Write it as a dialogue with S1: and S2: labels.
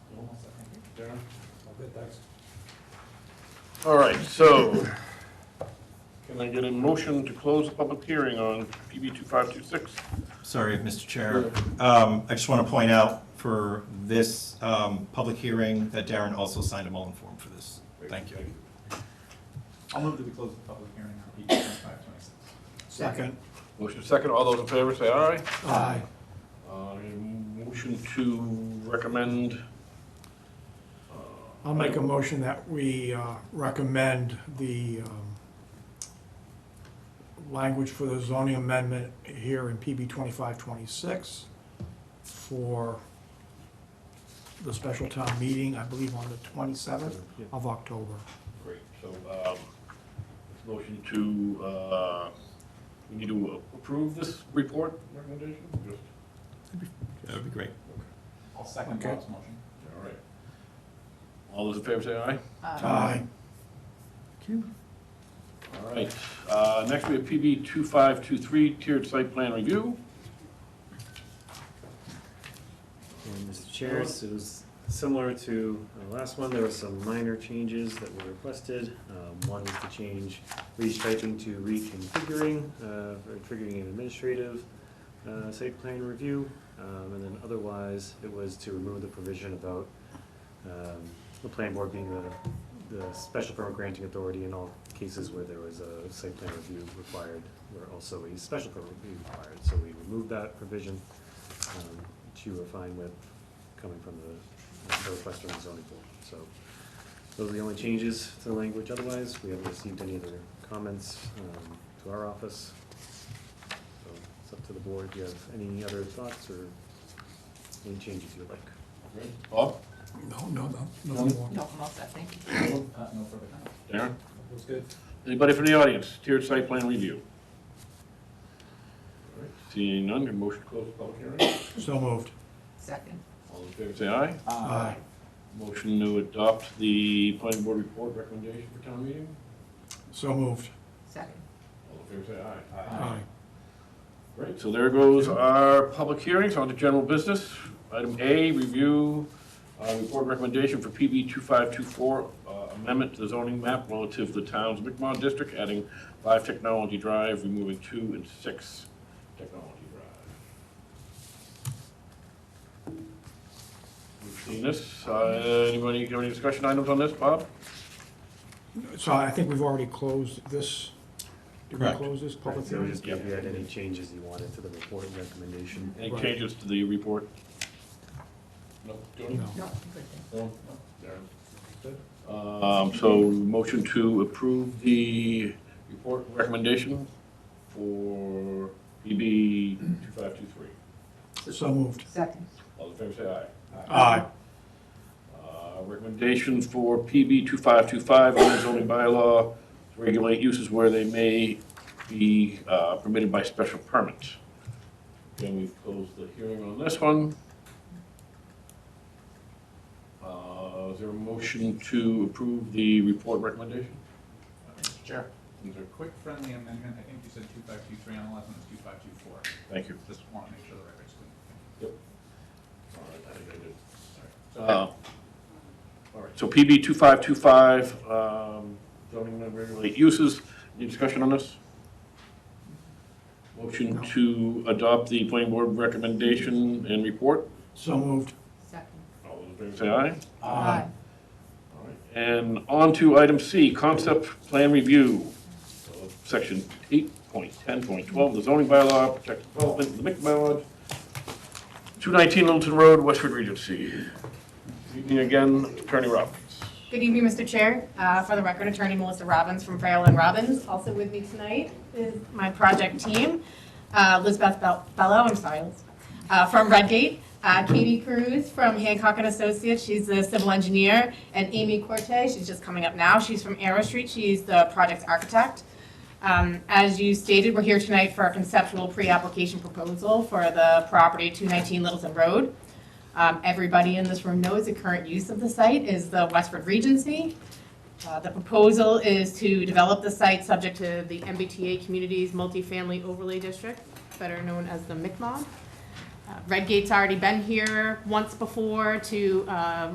S1: Darren?
S2: Okay, thanks.
S3: All right, so can I get a motion to close the public hearing on PB 2526?
S4: Sorry, Mr. Chair. Um, I just want to point out for this um, public hearing that Darren also signed a Mullen form for this. Thank you. I'll move that we close the public hearing on PB 2526.
S2: Second.
S3: Motion second, all those in favor say aye.
S2: Aye.
S3: Uh, Motion to recommend,
S2: I'll make a motion that we uh, recommend the um, language for the zoning amendment here in PB 2526 for the special town meeting, I believe on the 27th of October.
S3: great, so um, it's motion to, uh, we need to approve this report recommendation? Just-
S4: That would be great.
S5: I'll second
S2: Okay.
S5: Bob's motion.
S3: All right. All those in favor say aye.
S2: Aye.
S3: All right, uh, next we have PB 2523, tiered site plan review.
S6: And Mr. Chair, so it was similar to the last one, there were some minor changes that were requested. Um, One is to change restriping to reconfiguring, uh, or triggering an administrative uh, site plan review. Um, And then otherwise, it was to remove the provision about um, the planning board being the, the special permit granting authority in all cases where there was a site plan review required, where also a special permit would be required. So we removed that provision um, which you were fine with coming from the, the request from the zoning board. So those are the only changes to the language. Otherwise, we haven't received any other comments um, to our office. So it's up to the board. Do you have any other thoughts or any changes you would like?
S3: Bob?
S2: No, no, no, no more.
S7: No, most, I think.
S5: Uh, no further comment.
S3: Darren?
S5: Looks good.
S3: Anybody from the audience, tiered site plan review? All right, Seeing none, your motion to close the public hearing.
S2: So moved.
S7: Second.
S3: All in favor, say aye.
S5: Uh,
S2: Aye.
S3: Motion to adopt the planning board report recommendation for town meeting.
S2: So moved.
S7: Second.
S3: All in favor, say aye.
S2: Aye.
S3: Great, so there goes our public hearings on to general business. Item A, review, uh, report recommendation for PB 2524, uh, amendment to the zoning map relative to the town's McMod district, adding five Technology Drive, removing two and six Technology Drive. We've seen this. Uh, Anybody have any discussion items on this, Bob?
S2: So I think we've already closed this. Did we
S4: Correct.
S2: close this public
S6: So
S2: hearing?
S6: just if you had any changes you wanted to the report and recommendation.
S3: Any
S2: Right.
S3: changes to the report? No. Tony?
S2: No.
S7: No, good thing.
S3: Um, so motion to approve the report recommendation for PB two five two three.
S2: So moved.
S7: Second.
S3: All in favor, say aye.
S2: Aye.
S3: Uh, recommendation for PB two five two five, on the zoning bylaw, to regulate uses where they may be, uh, permitted by special permit. Again, we've closed the hearing on this one. Uh, is there a motion to approve the report recommendation?
S5: Mr.
S3: Chair. Is there a quick
S5: Quick friendly amendment, I think you said two five two three on the last one, it's two five two four.
S3: Thank you.
S5: Just want to make sure the record's clean.
S3: All right, I think I did.
S5: Sorry.
S3: Uh, All right, so PB 2525, um, zoning and regulate uses. Any discussion on this? Motion
S2: No.
S3: to adopt the planning board recommendation and report.
S2: So moved.
S7: Second.
S3: All those in favor say aye.
S7: Aye.
S3: All right, And on to item C, concept plan review of section 8.10.12 of the zoning bylaw, protected development, the MIC bylaw, 219 Littleton Road, Westford Regency. Good Evening again, Attorney Robbins.
S8: Good evening, Mr. Chair. Uh, For the record, Attorney Melissa Robbins from Farrell and Robbins. Also with me tonight is my project team, uh, Lizbeth Bel- Bello, I'm sorry, Liz, uh, from Redgate, uh, Katie Cruz from Hancock and Associates, she's the civil engineer, and Amy Corte, she's just coming up now, she's from Arrow Street, she's the project architect. Um, As you stated, we're here tonight for a conceptual pre-application proposal for the property 219 Littleton Road. Um, Everybody in this room knows the current use of the site is the Westford Regency. Uh, The proposal is to develop the site subject to the MBTA Community's Multifamily Overlay District, better known as the MICMOD. Uh, Redgate's already been here once before to uh,